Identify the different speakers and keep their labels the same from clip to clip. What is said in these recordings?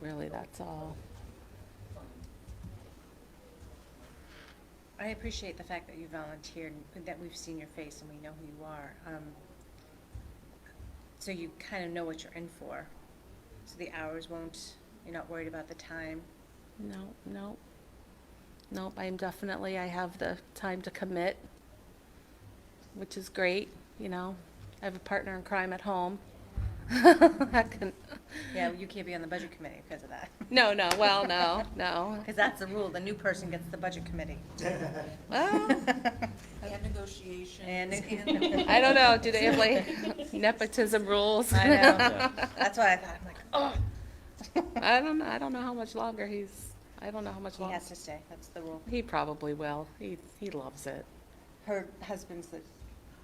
Speaker 1: really, that's all.
Speaker 2: I appreciate the fact that you volunteered, that we've seen your face and we know who you are. Um, So you kind of know what you're in for. So the hours won't, you're not worried about the time.
Speaker 1: No, no. Nope, I'm definitely, I have the time to commit, which is great, you know. I have a partner in crime at home. I couldn't-
Speaker 2: Yeah, you can't be on the budget committee because of that.
Speaker 1: No, no, well, no, no.
Speaker 2: Because that's the rule, the new person gets the budget committee.
Speaker 1: Well,
Speaker 3: And negotiations.
Speaker 2: And-
Speaker 1: Oh. I don't know, do they have like nepotism rules?
Speaker 2: I know. That's why I thought, I'm like, oh,
Speaker 1: I don't, know. I don't know how much longer he's, I don't know how much
Speaker 2: he
Speaker 1: longer.
Speaker 2: has to stay, that's the rule.
Speaker 1: He probably will. He, he loves it.
Speaker 2: Her husband's the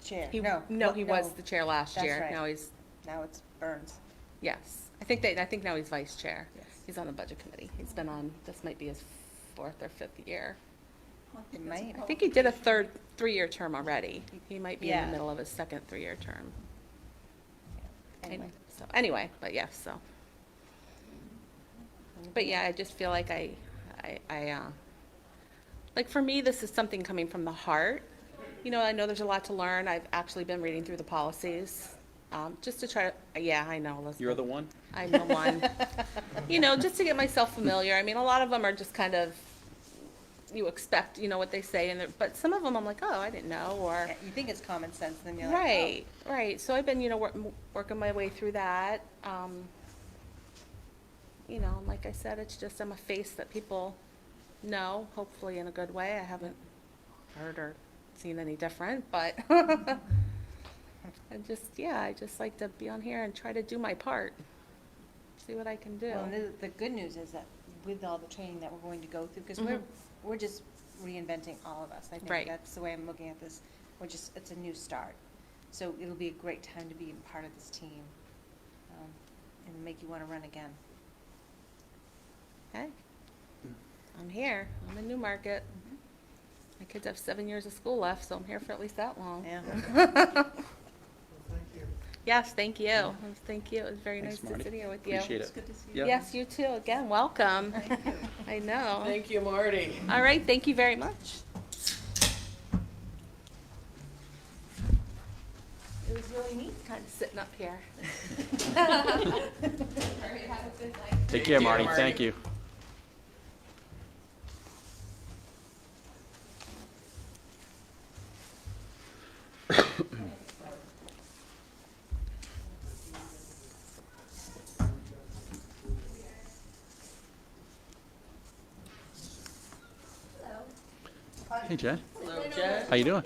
Speaker 2: chair.
Speaker 1: He-
Speaker 2: No.
Speaker 1: No,
Speaker 2: what-
Speaker 1: he was the chair last
Speaker 2: That's
Speaker 1: year.
Speaker 2: right.
Speaker 1: Now he's,
Speaker 2: Now it's Burns.
Speaker 1: yes. I think they, I think now he's vice chair.
Speaker 2: Yes.
Speaker 1: He's on the budget committee. He's been on, this might be his fourth or fifth year.
Speaker 2: It might.
Speaker 1: I think he did a third, three-year term already. He might be in
Speaker 2: Yeah.
Speaker 1: the middle of his second three-year term.
Speaker 2: Anyway.
Speaker 1: So, anyway, but yes, so. But yeah, I just feel like I, I, I, uh, like for me, this is something coming from the heart. You know, I know there's a lot to learn. I've actually been reading through the policies, um, just to try to, yeah, I know, Elizabeth.
Speaker 4: You're the one?
Speaker 1: I'm the one. you know, just to get myself familiar. I mean, a lot of them are just kind of, you expect, you know, what they say, and they're- but some of them I'm like, oh, I didn't know, or.
Speaker 2: Yeah, You think it's common sense, then you're like, oh.
Speaker 1: Right, right. So I've been, you know, wor- m- working my way through that. Um, you know, and like I said, it's just I'm a face that people know, hopefully in a good way. I haven't heard or seen any different, but I just, yeah, I just like to be on here and try to do my part. See what I can do.
Speaker 2: Well, and the, the good news is that with all the training that we're going to go through, because we're,
Speaker 1: Mhm.
Speaker 2: we're just reinventing all of us. I think
Speaker 1: Right.
Speaker 2: that's the way I'm looking at this. We're just, it's a new start. So it'll be a great time to be a part of this team um, and make you want to run again.
Speaker 1: Hey, I'm here. I'm in Newmarket.
Speaker 2: Mm-hmm.
Speaker 1: My kids have seven years of school left, so I'm here for at least that long.
Speaker 2: Yeah.
Speaker 1: Yes, thank you. Thank you. It was very nice
Speaker 4: Thanks,
Speaker 1: to
Speaker 4: Marty.
Speaker 1: sit here with you.
Speaker 4: Appreciate
Speaker 3: It's
Speaker 4: it.
Speaker 3: good to see you.
Speaker 4: Yeah.
Speaker 1: Yes, you too. Again, welcome. I know.
Speaker 5: Thank you, Marty.
Speaker 1: All right, thank you very much. It was really neat kind of sitting up here.
Speaker 4: Take care, Marty. Thank you. Hey, Jen.
Speaker 5: Hello, Jen.
Speaker 4: How you doing?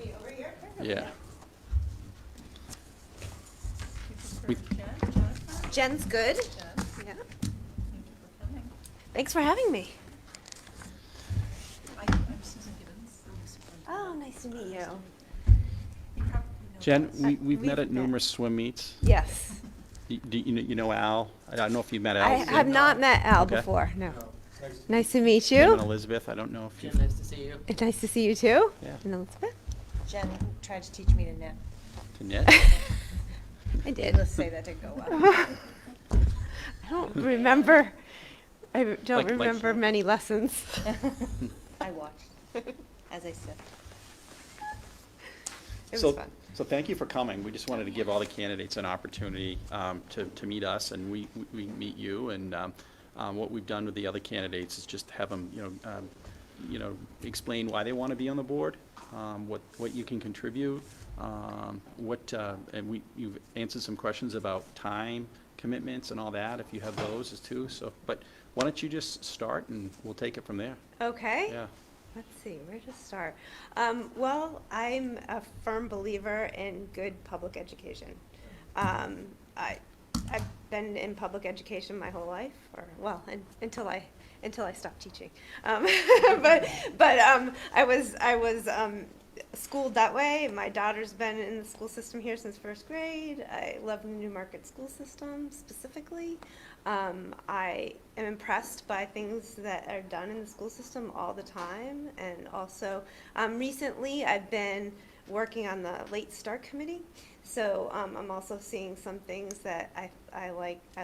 Speaker 4: Yeah. We-
Speaker 6: Jen's good. Yeah. Thanks for having me.
Speaker 3: I- I'm Susan Gibbons. I'm the superintendent.
Speaker 6: Oh, nice to meet you.
Speaker 3: You probably know
Speaker 4: Jen,
Speaker 3: us.
Speaker 4: we, we've met
Speaker 6: We've
Speaker 4: at
Speaker 6: met.
Speaker 4: numerous swim meets.
Speaker 6: Yes.
Speaker 4: You, do you, kn- you know Al? I don't know if you've met Al.
Speaker 6: I
Speaker 4: Jim
Speaker 6: have not met Al
Speaker 4: Okay.
Speaker 6: before, no. Nice to meet you.
Speaker 4: and Elizabeth, I don't know if
Speaker 5: Jim,
Speaker 4: you've,
Speaker 5: nice to see you.
Speaker 6: And Nice to see you too.
Speaker 4: Yeah.
Speaker 6: And Elizabeth.
Speaker 2: Jen tried to teach me to knit.
Speaker 4: Annette?
Speaker 6: I did.
Speaker 2: Let's say that didn't go well.
Speaker 6: I don't remember, I
Speaker 4: Like-
Speaker 6: don't
Speaker 4: like-
Speaker 6: remember many lessons.
Speaker 2: I watched, as I said.
Speaker 6: It
Speaker 4: So-
Speaker 6: was fun.
Speaker 4: So thank you for coming. We just wanted to give all the candidates an opportunity um, to, to meet us, and we, we- we meet you. And um, um, what we've done with the other candidates is just have them, you know, um, you know, explain why they want to be on the board, um, what, what you can contribute, um, what, uh, and we, you've answered some questions about time commitments and all that, if you have those as too, so, but why don't you just start and we'll take it from there?
Speaker 6: Okay.
Speaker 4: Yeah.
Speaker 6: Let's see, where to start? Um, well, I'm a firm believer in good public education. Um, I, I've been in public education my whole life, or, well, un- until I, until I stopped teaching. Um, but, but, um, I was, I was, um, schooled that way. My daughter's been in the school system here since first grade. I love the Newmarket school system specifically. Um, I am impressed by things that are done in the school system all the time. And also, um, recently, I've been working on the Late Start Committee. So um, I'm also seeing some things that I, I like, I